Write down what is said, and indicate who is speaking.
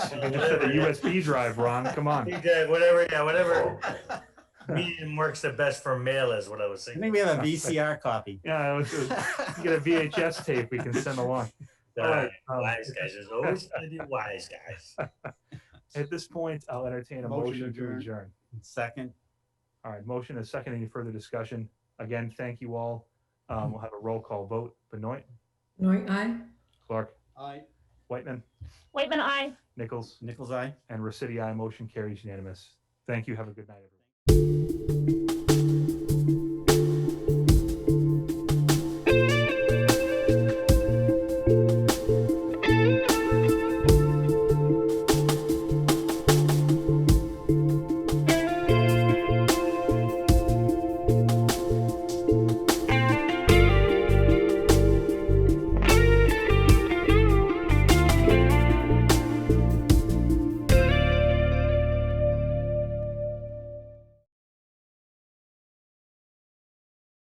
Speaker 1: Instead of USB drive, Ron, come on.
Speaker 2: DJ, whatever, yeah, whatever. Medium works the best for mail is what I was
Speaker 3: I
Speaker 2: thinking.
Speaker 3: think we have a VCR copy.
Speaker 1: Yeah, let's uh, get a VHS tape we can send along. All right, um,
Speaker 2: Wise guys, there's always gonna be wise guys.
Speaker 1: At this point, I'll entertain a
Speaker 3: Motion
Speaker 1: motion to
Speaker 3: adjourn.
Speaker 1: adjourn.
Speaker 3: Second,
Speaker 1: All right, motion is second. Any further discussion? Again, thank you all. Um, We'll have a roll call vote. Benoit,
Speaker 4: Benoit, aye?
Speaker 1: Clark,
Speaker 5: Aye.
Speaker 1: Whitman,
Speaker 6: Waitman, I.
Speaker 1: Nichols,
Speaker 3: Nichols Eye.
Speaker 1: and Resity, I. Motion carries unanimous. Thank you. Have a good night, everyone.